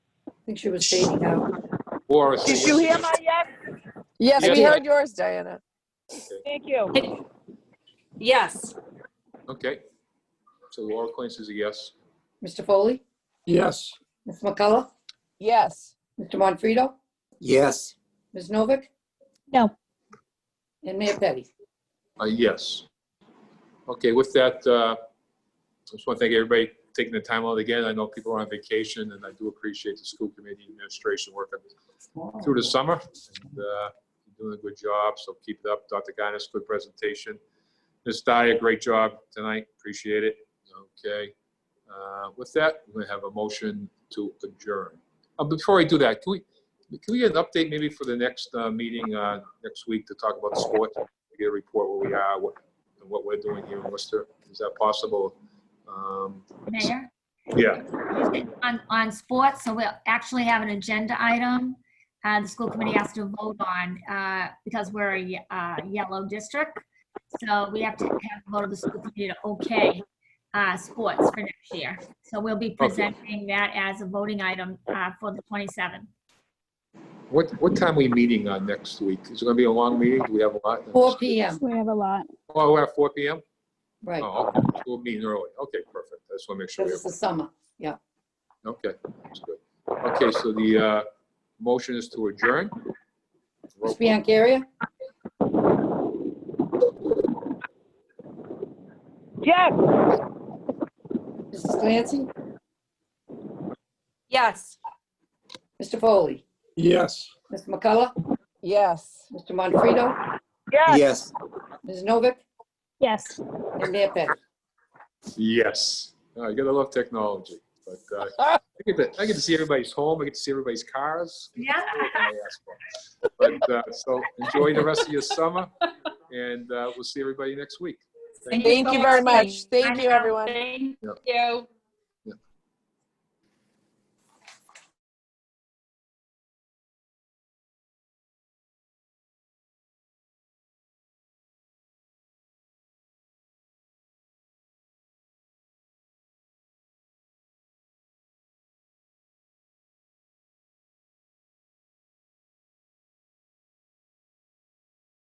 think she was uh, fading out. Or is Did you hear my yes? Yes, Yeah. we heard yours, Diana. Thank you. Yes. Okay. So Laura Quince is a yes. Mr. Foley? Yes. Ms. McCullough? Yes. Mr. Montfredo? Yes. Ms. Novick? No. And Mayor Petty? A Uh, yes. Okay, with that, uh, I just want to thank everybody for taking the time out again. I know people are on vacation, and I do appreciate the school committee administration working through the summer. and uh, Doing a good job, so keep it up. Dr. Guinness, good presentation. Ms. Dyer, great job tonight. Appreciate it. Okay. Uh, With that, we have a motion to adjourn. Uh, Before I do that, can we, can we get an update maybe for the next uh, meeting uh, next week to talk about the sports? to get a report where we are, what, and what we're doing here in Worcester. Is that possible? Um, Mayor, Yeah, on, on sports, so we'll actually have an agenda item. Uh, the school committee has to vote on, uh, because we're a, ye- uh, yellow district. So we have to have a vote of the school committee to okay, uh, sports for next year. So we'll be presenting that as a voting item, uh, for the 27th. what, what time are we meeting on next week? Is it gonna be a long meeting? Do we have a lot? 4 PM, We have a lot. Oh, we're at four P M? right, Oh, okay. we're meeting early. Okay, perfect. I just wanna make sure. we because have it's the summer. Okay, that's good. Okay, so the, uh, motion is to adjourn? Ms. Biancaria? Yes. Mrs. Clancy? Yes. Mr. Foley? Yes. Ms. McCullough? Yes. Mr. Montfredo? Yes. Yes. Ms. Novick? Yes. And Mayor Petty? Yes. Uh, You gotta love technology, but, uh, I get to, I get to see everybody's home. I get to see everybody's cars. Yeah. But, uh, so enjoy the rest of your summer and, uh, we'll see everybody next week. Thank you very much. I Thank you, know. everyone. Thank Yep. you.